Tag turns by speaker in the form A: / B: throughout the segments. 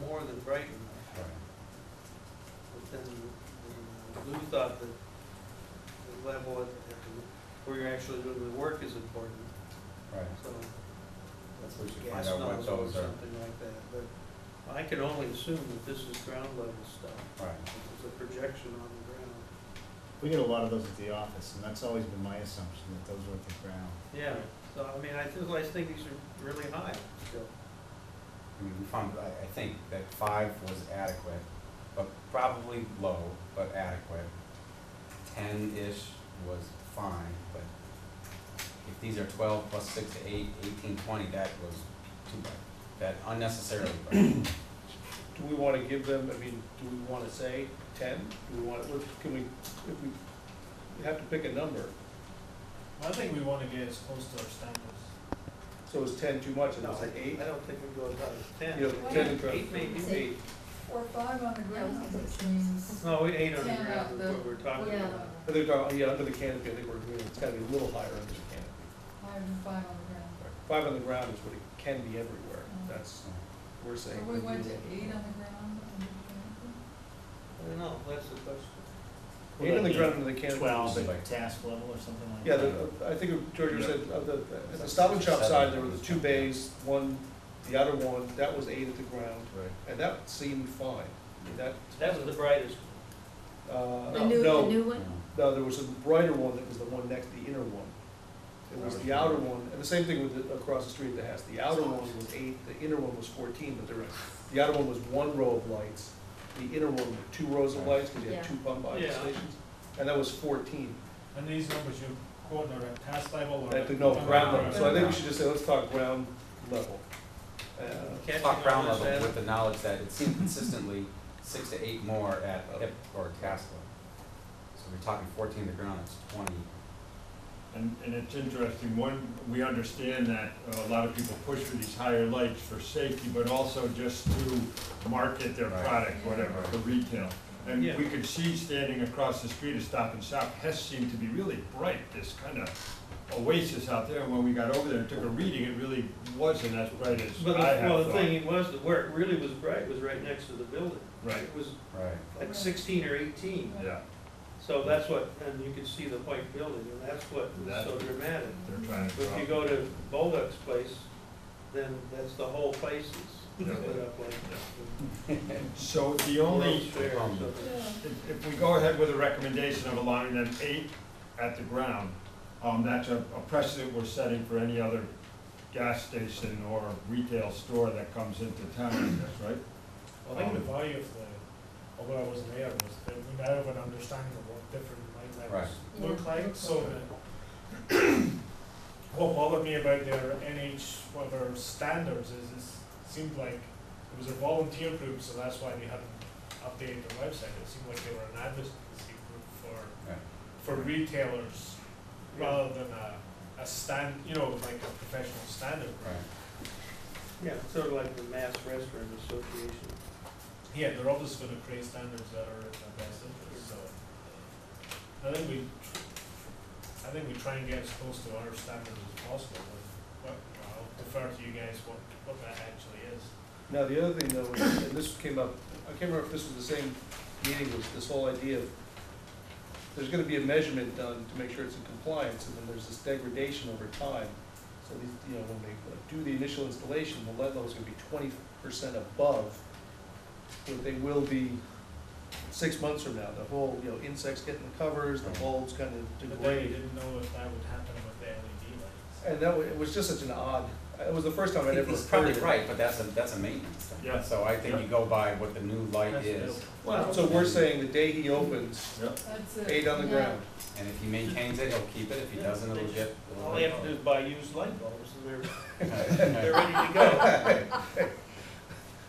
A: more than Brighton, but then the Lou thought that the level at, at the- where you're actually doing the work is important,
B: Right,
A: so.
B: That's what we should
A: gas
B: find out what
A: nozzle or
B: those are.
A: Something like that, but I can only assume that this is ground level stuff,
B: right.
A: it's a projection on the ground.
C: We get a lot of those at the office, and that's always been my assumption, that those were at the ground.
A: Yeah, so I mean, I just, I think these are really high still.
B: I mean, we found, I, I think that five was adequate, but probably low, but adequate. Ten-ish was fine, but if these are twelve plus six to eight, eighteen, twenty, that was too bad. That unnecessarily, bad.
D: Do we wanna give them, I mean, do we wanna say ten? Do we want, what, can we, if we, we have to pick a number.
E: I think we wanna get as close to our standards.
D: So is ten too much and
A: No,
D: is it eight?
A: I don't think we go as high as ten.
D: You know,
F: Why
D: ten
F: not?
D: and twelve.
A: Eight maybe.
D: Eight.
F: Or five on the ground, which means,
A: No, we eight on the
F: Yeah,
A: ground is
F: the-
A: what we're talking
F: yeah,
A: about.
D: I think, uh, yeah, under the canopy, I think we're agreeing, it's gotta be a little higher under the canopy.
F: higher than five on the ground.
D: Five on the ground is what it can be everywhere,
F: Mm.
D: that's, we're
F: So
D: saying.
F: we went to
D: ideal.
F: eight on the ground and we
A: I don't know, that's the question.
D: Eight on the ground under the canopy.
C: Twelve
B: like-
C: at task level or something like
D: Yeah,
C: that?
D: the, I think George said, of the, at the
B: Like
D: Stop and Shop
B: seven.
D: side, there were the two bays, one, the other one, that was eight at the ground,
B: Right.
D: and that seemed fine. I mean, That,
A: That was the brightest.
D: uh,
A: The
D: no,
B: Yeah.
D: No, there was a brighter one that was the one next, the inner one. It was the outer one, and the same thing with, the- across the street at the house, the outer one was eight, the inner one was fourteen, but there, were- the outer one was one row of lights. The inner one, two rows of lights, because you had two pump out
A: Yeah.
D: stations, and that was fourteen.
E: And these numbers you quote are at task level or?
D: I think, no, ground level, so I think we
B: Ground.
D: should just say, let's talk ground level. Uh,
A: Catching
B: Talk ground
A: on this
B: level
A: ad-
B: with the knowledge that it seemed consistently six to eight more at hip or task level. So we're talking fourteen to ground, that's twenty.
G: And, and it's interesting, one, we understand that uh, a lot of people push for these higher lights for safety, but also just to market their
B: Right.
G: product, whatever, for retail. And
A: Yeah.
G: we could see standing across the street at Stop and Shop, Hess seemed to be really bright, this kind of oasis out there. And when we got over there and took a reading, it really wasn't as bright as
A: But,
G: I
A: the-
G: had
A: well, the
G: thought.
A: thing was, that where it really was bright was right next to the building.
G: Right.
A: It was
B: Right.
A: like sixteen or eighteen,
G: Yeah,
A: so that's what, and you could see the white building, and that's what was so
G: That's-
A: dramatic.
G: they're trying to
A: But if you
G: drop-
A: go to Bolduc's place, then that's the whole place
G: Yeah.
A: is lit up like.
G: So the only.
A: World's Fair or
B: um,
A: something.
F: can. Yeah.
G: If, if we go ahead with a recommendation of allowing them eight at the ground, um, that's a, a precedent we're setting for any other gas station or retail store that comes into town, I guess, right? Um,
E: I think the value of the, although I wasn't there, was that we now have an understanding of what different light levels
F: Right.
E: look like, so that what bothered me about their NH, whatever standards is, is seemed like it was a volunteer group, so that's why they hadn't updated their website. It seemed like they were an advocacy group for,
B: Right.
E: for retailers rather than a, a stand, you know, like a professional standard.
B: Right.
A: Yeah, it's sort of like the Mass Restaurant Association.
E: Yeah, they're obviously gonna create standards that are in their best interest, so. uh, I think we, tr- I think we try and get as close to our standards as possible, but, but I'll defer to you guys what, what that actually is.
D: Now, the other thing though, is- and this came up, I can't remember if this was the same meeting, was this whole idea of, there's gonna be a measurement done to make sure it's in compliance, and then there's this degradation over time. So these, you know, when they do the initial installation, the lead level's gonna be twenty percent above what they will be six months from now. The whole, you know, insects getting the covers, the bulbs kind
E: But
D: of
E: then you
D: degrade.
E: didn't know if that would happen with the E LED lights.
D: And that was, it was just such an odd, it was the first time I'd ever heard it.
B: He's probably right, but that's a, that's a maintenance thing.
G: Yeah.
B: So I think you go by what the new light
E: That's
B: is,
D: Well, So we're saying the day he opens,
F: That's it.
D: eight on the
F: Yeah.
D: ground.
B: and if he maintains it, he'll keep it, if he
A: Yeah,
B: doesn't,
A: they
B: it'll get.
A: All they have to do is buy used light bulbs and they're,
B: do.
A: they're ready to go.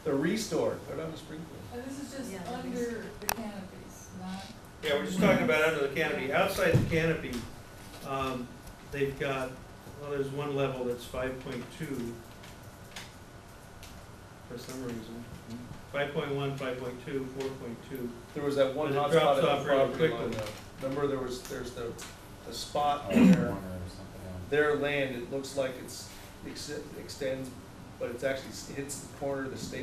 D: The restore, they're not a sprinkler.
F: And this is just
H: Yeah, that makes-
F: under the canopies, not.
A: Yeah, we're just talking about under the canopy. Outside the canopy, um, they've got, well, there's one level that's five point two for some reason. Five point one, five point two, four point two.
D: There was that one
A: But it
D: hot
A: drops
D: spot at the
A: off really
D: property line.
A: quickly.
D: though. Remember, there was, there's the, the spot
B: Corner
D: where
B: or something else.
D: their land, it looks like it's, ex- extends, but it's actually, hits the corner of the state